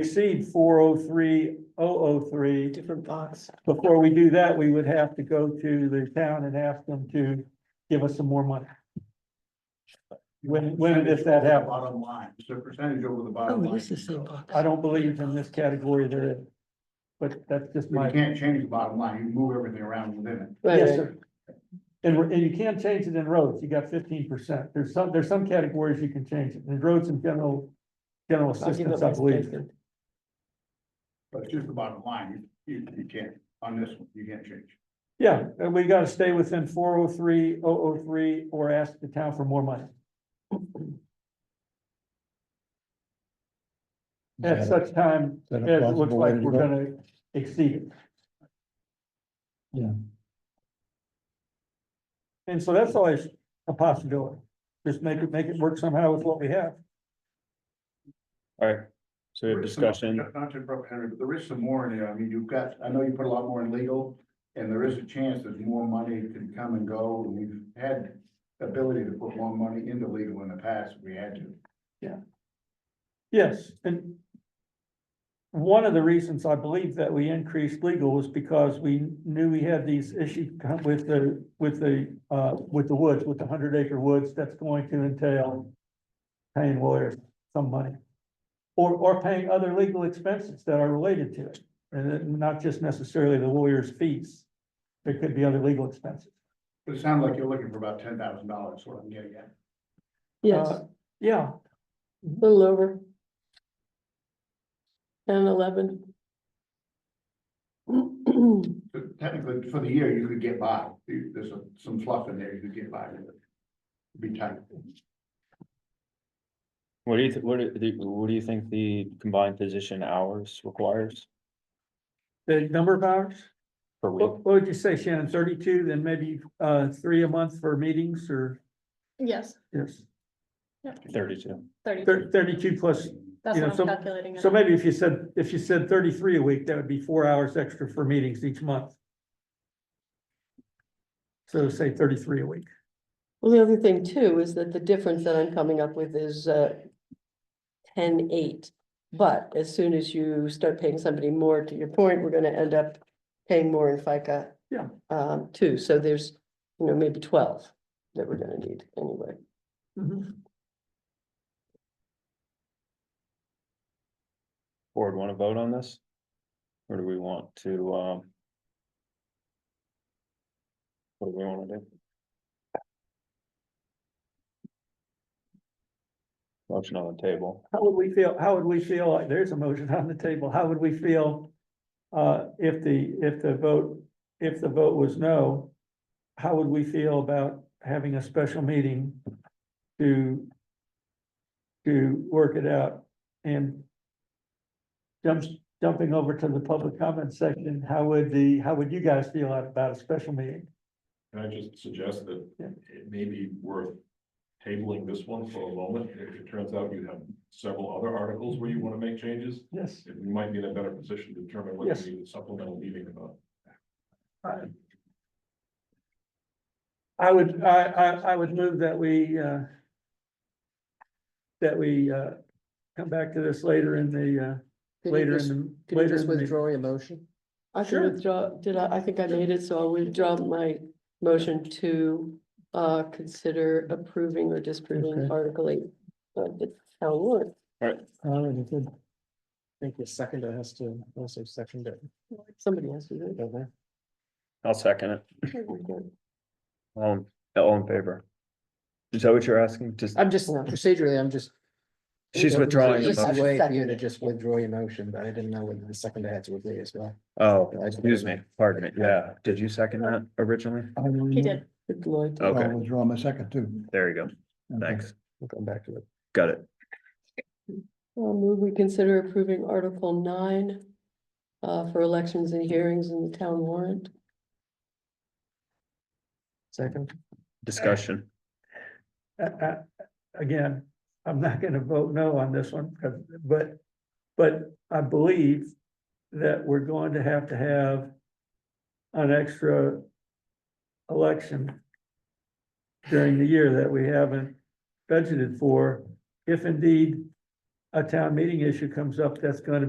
exceed four oh three, oh oh three, different box. before we do that, we would have to go to the town and ask them to give us some more money. When, when does that happen? Bottom line, it's a percentage over the bottom Oh, line. it is the same box. I don't believe in this category there is. But that's just But my. You can't change the bottom line, you move everything around within it. Right, Yes, right. sir. And, we're- and you can't change it in roads, you got fifteen percent, there's some, there's some categories you can change it, in roads and general, general I'll give up assistance, I my believe. statement. But it's just the bottom line, you, you, you can't, on this one, you can't change. Yeah, and we gotta stay within four oh three, oh oh three, or ask the town for more money. At such time as it looks like we're gonna exceed it. Yeah. And so that's always a possibility, just make it, make it work somehow with what we have. All right, so we have There is some- discussion. not- Not to interrupt Henry, but there is some more in there. I mean, you've got, I know you put a lot more in legal, and there is a chance that more money can come and go, and we've had ability to put more money into legal in the past, if we had to. Yes, and one of the reasons I believe that we increased legal was because we knew we had these issues come with the, with the, uh, with the woods, with the hundred acre woods, that's going to entail paying lawyers some money. Or, or paying other legal expenses that are related to it, and it- not just necessarily the lawyer's fees. There could be other legal expenses. But it sounds like you're looking for about ten thousand dollars, what I'm getting at. Yes, Uh, a Yeah, little over. Ten, eleven. But technically, for the year, you could get by. You- There's a- some fluff in there, you could get by with it. Be tight. What do you, thi- what do, the- what do you think the combined physician hours requires the number of hours? per What, week? what would you say, Shannon, thirty-two, then maybe, uh, three a month for meetings or, Yes, yes, Thirty-two. thirty, thir- thirty-two plus, that's you know, what I'm some- calculating. it so at. maybe if you said, if you said thirty-three a week, that would be four hours extra for meetings each month. So say thirty-three a week, Well, the other thing too is that the difference that I'm coming up with is uh. Ten, eight, but as soon as you start paying somebody more, to your point, we're gonna end up paying more in FICA. Yeah. Um, too, so there's, you know, maybe twelve that we're gonna need anyway. Mm-hmm. Board want to vote on this? Or do we want to, um? What do we want to do? Motion on the table. how would we feel, how would we feel, like there's a motion on the table, how would we feel? Uh, if the, if the vote, if the vote was no, how would we feel about having a special meeting to to work it out and jumps, jumping over to the public comment section, how would the, how would you guys feel about a special meeting? Can I just suggest that Yeah. it may be worth tabling this one for a moment, if it turns out you have several other articles where you want to make changes, Yes. we might be in a better position to determine whether Yes. we need a supplemental meeting or not. I would, I, I, I would move that we, uh, that we, uh, come back to this later in the, uh, Did you later just- in the, Did you later just in the. withdraw your motion? I can Sure. withdraw, did I, I think I made it, so I'll withdraw my motion to uh consider approving or disapproving Okay. Article eight. of the town warrant. All right, good. I think the second has to also second it, Somebody has to do don't they? I'll second it. it. Um, all in favor? Is that what you're asking? Just, I'm just, procedurally, I'm just. she's withdrawing. the It's motion. a way for you Second to it. just withdraw your motion, but I didn't know whether the second had to agree as well. Oh, excuse me, pardon me. Yeah, did you second that originally? He did. Good Lloyd. Oh. Okay, withdraw my second too. there you go. Thanks. We'll come back to it. Got it. I'll move, we consider approving Article nine uh for elections and hearings in the town warrant. Second, Discussion. Uh, uh, Again, I'm not gonna vote no on this one, 'cause- but, but I believe that we're going to have to have an extra election during the year that we haven't budgeted for, if indeed a town meeting issue comes up, that's gonna